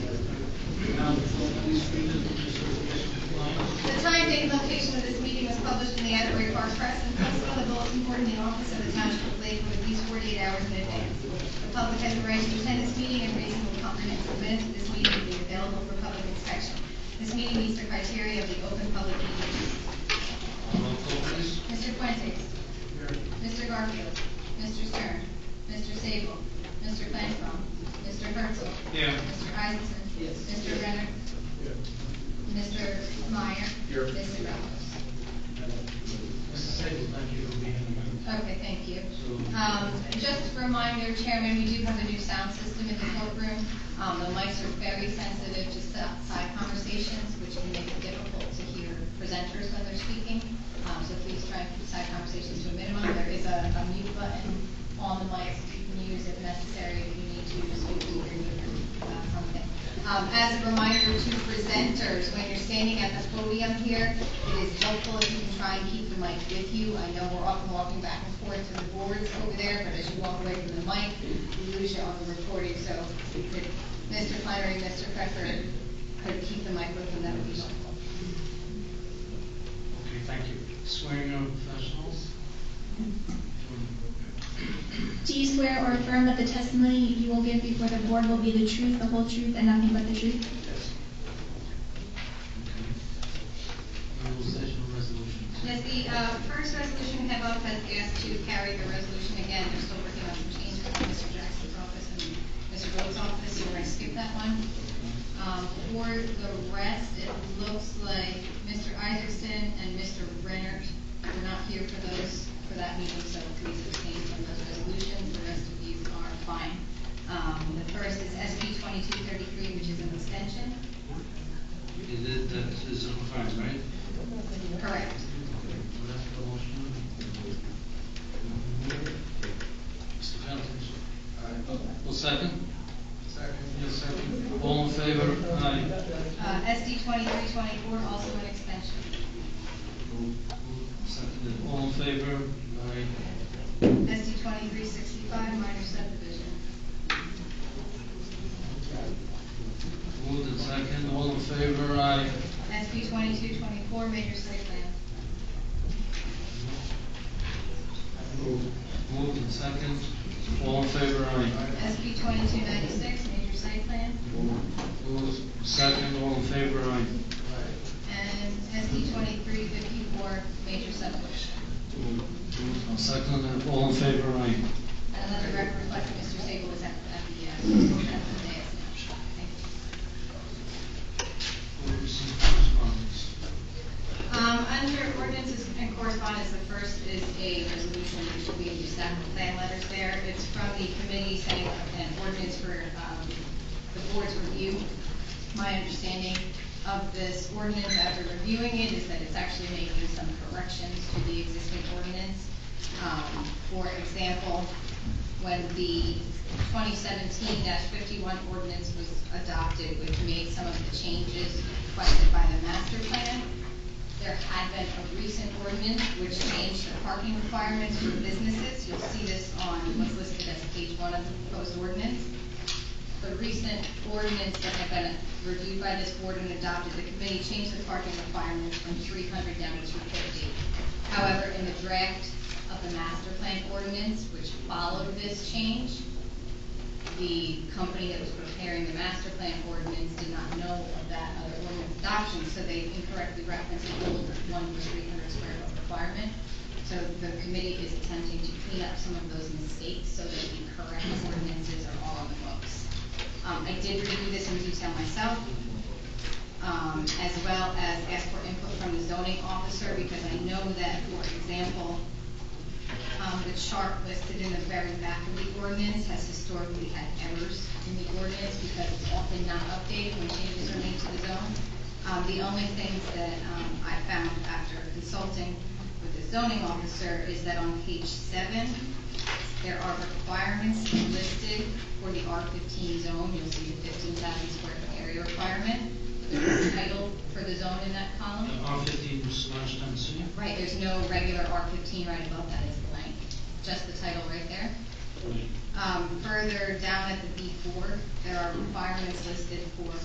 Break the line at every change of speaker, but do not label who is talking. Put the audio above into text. date and location of this meeting was published in the Asbury Park Press and posted on the bulletin board in the office of the township of Lakewood at least forty-eight hours in advance. The public has a right to attend this meeting and reasonable comprehensive minutes of this meeting will be available for public inspection. This meeting meets the criteria of the open public meeting.
Roll call, please.
Mr. Fuentes. Mr. Garfield. Mr. Stern. Mr. Sable. Mr. Flansbrough. Mr. Herzl.
Here.
Mr. Isaacson.
Yes.
Mr. Renner. Mr. Meyer.
Here.
Mr. Ramos.
Mr. Sable, thank you for being here.
Okay, thank you. Um, Just a reminder, Chairman, we do have a new sound system in the courtroom. Um, The mics are very sensitive to sa- side conversations, which can make it difficult to hear presenters when they're speaking. Um, So please try and keep side conversations to a minimum. There is a a mute button on the mics you can use if necessary, if you need to, so you can hear your, uh, something. Um, As a reminder to presenters, when you're standing at the podium here, it is helpful if you can try and keep the mic with you. I know we're often walking back and forth to the boards over there, but as you walk away from the mic, you lose you on the recording, so if Mr. Flannery, and Mr. Pfeffer could keep the mic with them, that would be helpful.
Okay, thank you. Swearing on professionals?
Do you swear or affirm that the testimony you will give before the board will be the truth, the whole truth, and nothing but the truth?
Yes. Okay. Rule session resolutions.
Yes, the uh, first resolution we have up has asked to carry the resolution again, they're still working on some changes in Mr. Jackson's office and Mr. Rhodes' office, so we're going to skip that one. Um, For the rest, it looks like Mr. Isaacson and Mr. Renner were not here for those, for that meeting, so please abstain from those resolutions, the rest of these are fine. Um, The first is SB 2233, which is an extension,
It is, that is on fire, right?
correct.
That's the motion. Mr. Feltes? Well, second? Second. Yes, second. All in favor? Aye.
Uh, SD 2324, also an extension.
Seconded. All in favor? Aye.
SD twenty-three sixty-five, minor subdivision.
Moved and second, all in favor, aye.
SB twenty-two twenty-four, major site plan.
Moved and second, all in favor, aye.
SB twenty-two ninety-six, major site plan.
Moved, second, all in favor, aye.
And SB twenty-three fifty-four, major subdivision.
Moved and seconded, all in favor, aye.
And let the record reflect that Mr. Sable was at at the, uh, at the dais now. Thank you.
Moved, receive correspondence.
Um, under ordinances and correspondence, the first is a resolution, which will be in your stack of plan letters there. It's from the committee setting up an ordinance for, um, the board's review. My understanding of this ordinance after reviewing it is that it's actually making some corrections to the existing ordinance. Um, for example, when the twenty seventeen fifty-one ordinance was adopted, which made some of the changes requested by the master plan, there had been a recent ordinance which changed the parking requirements for businesses. You'll see this on what's listed as page one of the proposed ordinance. The recent ordinance that had been reviewed by this board and adopted, the committee changed the parking requirements from three hundred down to two fifty. However, in the draft of the master plan ordinance, which followed this change, the company that was preparing the master plan ordinance did not know of that other ordinance adoption, so they incorrectly referenced the old one was three hundred square foot requirement. So the committee is attempting to clean up some of those mistakes so that the correct ordinances are all on the books. Um, I did review this in detail myself, um, as well as ask for input from the zoning officer, because I know that, for example, um, the chart listed in the very back of the ordinance has historically had errors in the ordinance because it's often not updated when changes are made to the zone. Um, the only things that, um, I found after consulting with the zoning officer is that on page seven, there are requirements listed for the R fifteen zone, you'll see the fifteen thousand square foot area requirement. There's a title for the zone in that column.
R fifteen slash ten C.
Right, there's no regular R fifteen right above that is blank, just the title right there. Um, further down at the B four, there are requirements listed for